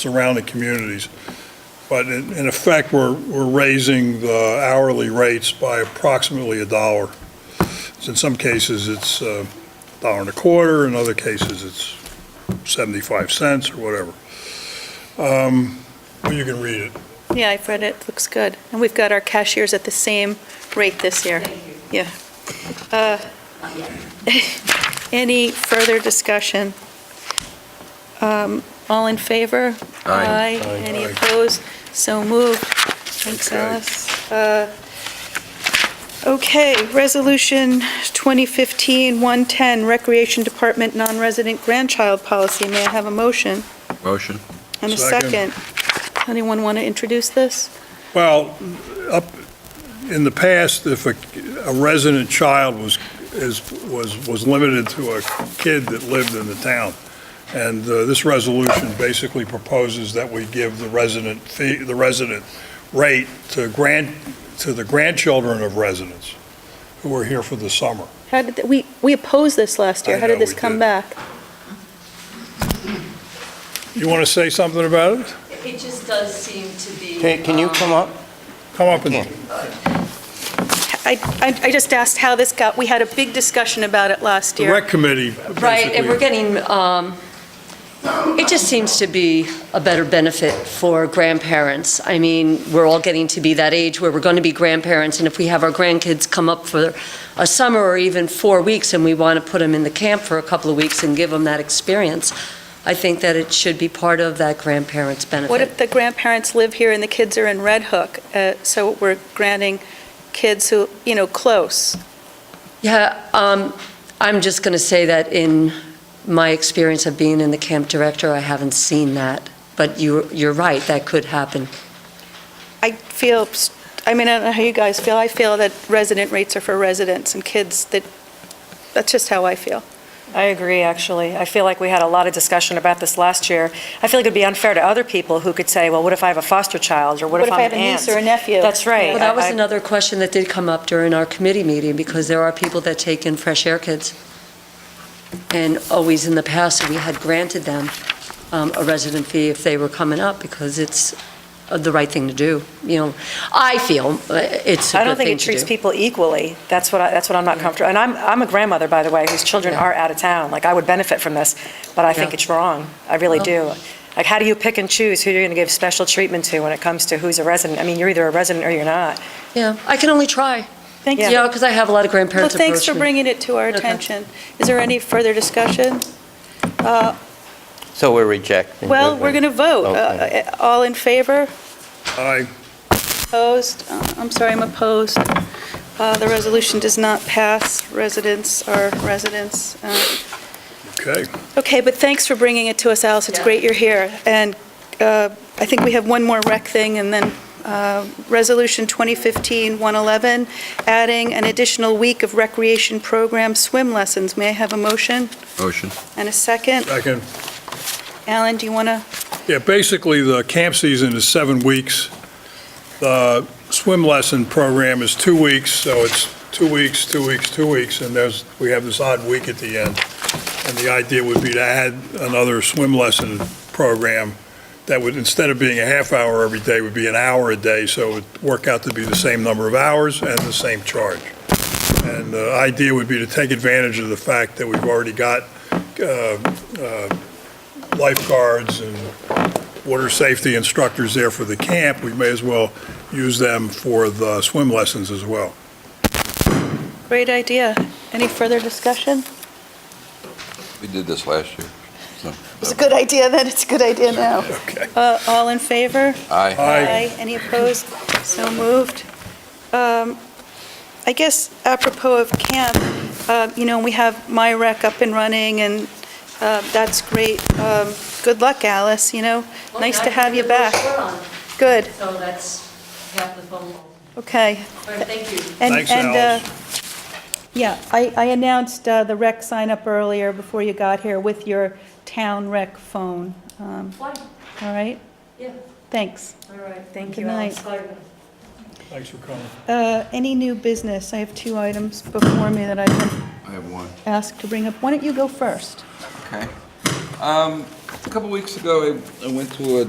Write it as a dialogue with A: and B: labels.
A: surrounding communities. But in, in effect, we're, we're raising the hourly rates by approximately a dollar. So In some cases, it's a dollar and a quarter, in other cases, it's 75 cents or whatever. Um, Well, you can read it.
B: Yeah, I've read it, looks good. And we've got our cashiers at the same rate this year. Yeah. Uh, Any further discussion? Um, All in favor?
C: Aye.
B: Any
A: Aye.
B: opposed? So moved. Thanks,
A: Okay.
B: Alice. Uh, Okay, Resolution 2015-110, Recreation Department Non-Resident Grandchild Policy. May I have a motion
C: Motion?
B: and a
A: Second.
B: second? Anyone want to introduce this?
A: Well, up, in the past, if a a resident child was, is, was, was limited to a kid that lived in the town, and uh, this resolution basically proposes that we give the resident fee, the resident rate to grand, to the grandchildren of residents who are here for the summer.
B: How did, th- we, we opposed this last year.
A: I
B: How did
A: know
B: this
A: we
B: come
A: did.
B: back?
A: You want to say something about it?
D: It just does seem to be.
E: Can can you
D: um,
E: come up?
A: Come up and,
B: I, I I just asked how this got, we had a big discussion about it last
A: the
B: year.
A: rec committee
D: Right, and we're
A: basically.
D: getting, um, it just seems to be a better benefit for grandparents. I mean, we're all getting to be that age where we're going to be grandparents, and if we have our grandkids come up for a summer or even four weeks, and we want to put them in the camp for a couple of weeks and give them that experience, I think that it should be part of that grandparents' benefit.
B: What if the grandparents live here and the kids are in Red Hook? Uh, So we're granting kids who, you know, close.
D: Yeah, um, I'm just going to say that in my experience of being in the camp director, I haven't seen that. But you, you're right, that could happen.
B: I feel, s- I mean, I don't know how you guys feel. I feel that resident rates are for residents and kids that, that's just how I feel.
F: I agree, actually. I feel like we had a lot of discussion about this last year. I feel like it'd be unfair to other people who could say, well, what if I have a foster child, or what
B: What
F: if
B: if I
F: I'm
B: have
F: an
B: a niece
F: aunt?
B: or a nephew?
F: That's right.
D: Well, that was
F: I- I-
D: another question that did come up during our committee meeting, because there are people that take in fresh air kids. And always in the past, we had granted them um, a resident fee if they were coming up, because it's uh, the right thing to do, you know. I feel uh, it's a
F: I
D: good
F: don't think
D: thing
F: it
D: to
F: treats
D: do.
F: people equally. That's what, I- that's what I'm not comfortable, and I'm, I'm a grandmother, by the way, whose children
D: Yeah.
F: are out of town. Like, I would benefit from this, but I think
D: Yeah.
F: it's wrong. I really
D: Well-
F: do. Like, how do you pick and choose who you're going to give special treatment to when it comes to who's a resident? I mean, you're either a resident or you're not.
D: Yeah, I can only try,
B: Thank
D: you
B: you.
D: know, because I have a lot of
B: Well,
D: grandparents approach me.
B: thanks for bringing it to our
D: Okay.
B: attention. Is there any further discussion? Uh,
E: So we're rejecting.
B: Well, we're going to vote.
E: Okay.
B: Uh, All in favor?
A: I,
B: Opposed? Uh, I'm sorry, I'm opposed. Uh, The resolution does not pass. Residents are residents. Uh,
A: okay.
B: Okay, but thanks for bringing it to us, Alice. It's great you're here. And uh, I think we have one more rec thing, and then uh, Resolution 2015-111, adding an additional week of recreation program swim lessons. May I have a motion
C: Motion.
B: and a second?
A: I can
B: Alan, do you want to?
A: Yeah, basically, the camp season is seven weeks. The swim lesson program is two weeks, so it's two weeks, two weeks, two weeks, and there's, we have this odd week at the end. And the idea would be to add another swim lesson program that would, instead of being a half hour every day, would be an hour a day, so it would work out to be the same number of hours and the same charge. And the idea would be to take advantage of the fact that we've already got uh, uh, lifeguards and water safety instructors there for the camp, we may as well use them for the swim lessons as well.
B: Great idea. Any further discussion?
C: We did this last year. so-
B: It's a good idea then, it's a good idea now.
A: Okay.
B: Uh, All in favor?
C: Aye.
A: Aye.
B: Any opposed? So moved. Um, I guess apropos of camp, uh, you know, we have my rec up and running, and uh, that's great. Um, Good luck, Alice, you know? Nice to have you back. Good,
D: So that's half the phone. call.
B: okay.
D: All right, thank you.
B: And-
A: Thanks,
B: and, uh,
A: Alice.
B: Yeah, I I announced uh, the rec sign-up earlier before you got here with your town rec phone. Um,
D: Fine,
B: All right?
D: yeah,
B: Thanks.
D: all right.
B: Thank you, Alex.
D: Bye.
A: Thanks for coming.
B: Uh, Any new business? I have two items before me that I've been
C: I have one.
B: asked to bring up. Why don't you go first?
C: Okay. Um, A couple weeks ago, I I went to a